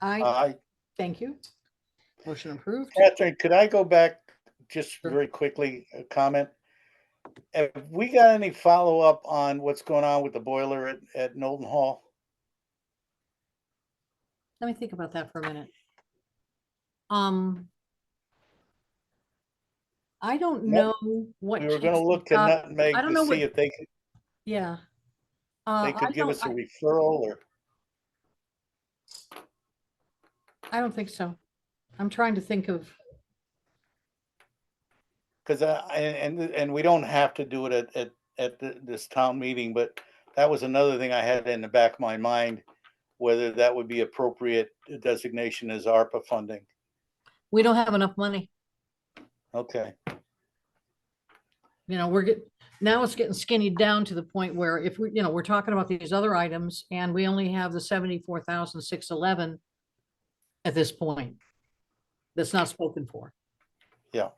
I, Uh, I, thank you. Motion approved. Catherine, could I go back just very quickly, a comment? Have we got any follow-up on what's going on with the boiler at, at Knowlton Hall? Let me think about that for a minute. Um. I don't know Well, what. We were checks gonna look to we've got. Nutmeg I don't know to see what- if they, could- Yeah. Uh, they I could give don't- us a I- referral or, I don't think so. I'm trying to think of, because I, and, and- and we don't have to do it at, at, at th- this town meeting, but that was another thing I had in the back of my mind, whether that would be appropriate designation as ARPA funding. we don't have enough money. Okay, You know, we're get, now it's getting skinny down to the point where if we, you know, we're talking about these other items and we only have the seventy-four thousand six eleven at this point. That's not spoken for. Yeah.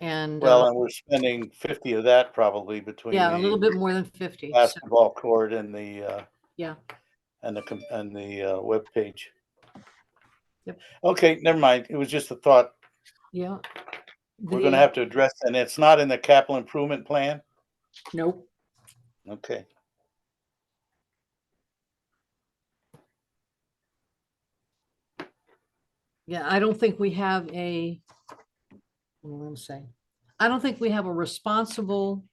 And, well, uh, and we're spending fifty of that probably between. yeah, a the- little bit more than fifty. so- basketball court and the, uh, Yeah. And the, com- and the, uh, webpage. Yep. Okay, never mind. It was just a thought. Yeah. We're The- gonna have to address, and it's not in the capital improvement plan? Nope. Okay. Yeah, I don't think we have a, what am I saying? I don't think we have a responsible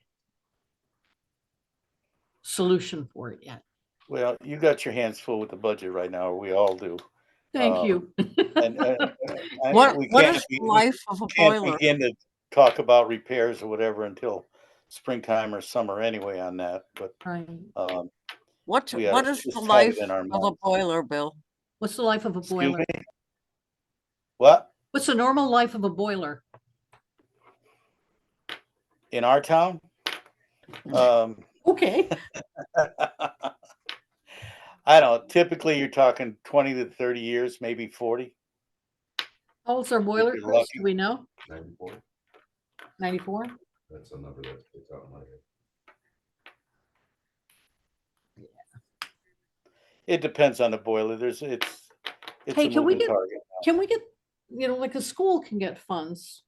solution for it yet. Well, you got your hands full with the budget right now, or we all do. Thank Um, you. And, uh, I- What, we what can't is be- the we life of a Can't boiler? begin to talk about repairs or whatever until springtime or summer anyway on that, but, Right. um, What, we ought what to is just the have it life in our of a minds. boiler, Bill? What's the life of a excuse boiler? me? What? What's the normal life of a boiler? In our town? Mm. Um, Okay. I don't, typically you're talking twenty to thirty years, maybe forty. How old's our boiler? you're Chris? lucky. Do we know? Ninety-four, Ninety-four? that's a number that sticks out in my head. It depends on the boiler. There's, it's. it's a Hey, can we moving get- target. Can we get, you know, like a school can get funds,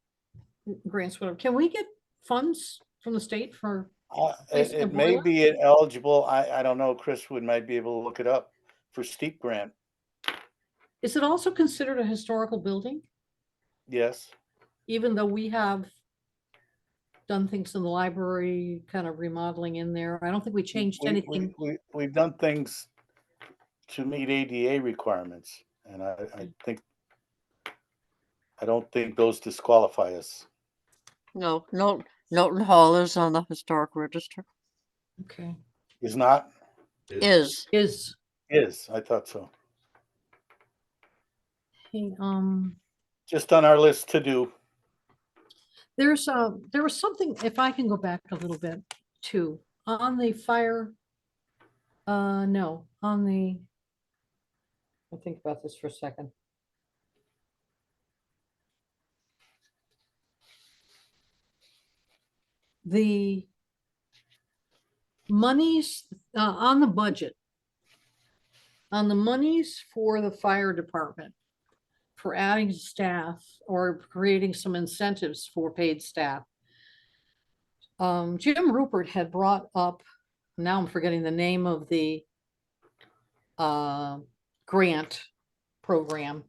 grants, whatever. Can we get funds from the state for Uh, place It, the it may boiler? be eligible. I, I don't know. Chris would, might be able to look it up for steep grant. Is it also considered a historical building, Yes. even though we have done things in the library, kind of remodeling in there? I don't think we changed We- we- anything. We, we've done things to meet ADA requirements and I, I think, I don't think those disqualify us. No, Nol- Knowlton Hall is on the historic register. Okay, Is not, Is, is, is, I thought so. hey, um, Just on our list to do. there's a, there was something, if I can go back a little bit too, on the fire. Uh, no, on the. I'll think about this for a second. The monies, uh, on the budget. On the monies for the fire department. For adding staff or creating some incentives for paid staff. Um, Jim Rupert had brought up, now I'm forgetting the name of the uh, grant program.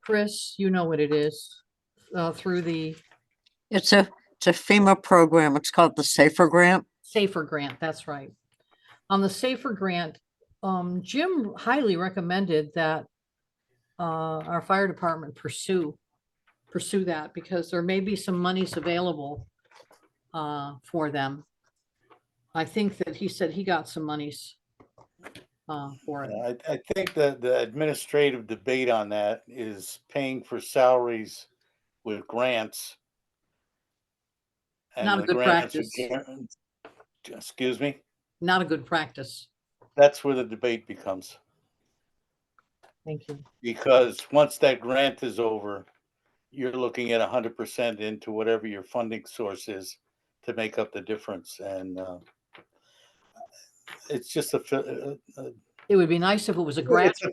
Chris, you know what it is, uh, through the it's a, it's a FEMA program. It's called the Safer Grant. Safer Grant, that's right. On the Safer Grant, um, Jim highly recommended that uh, our fire department pursue, pursue that because there may be some monies available uh, for them. I think that he said he got some monies uh, for it. I, I think the, the administrative debate on that is paying for salaries with grants. and Not a the good grants are practice. guaran- Excuse me, Not a good practice. that's where the debate becomes, Thank you. because once that grant is over, you're looking at hundred percent into whatever your funding source is to make up the difference, and, uh, it's just a, fi- a- a It would be nice if it was a grant. It's a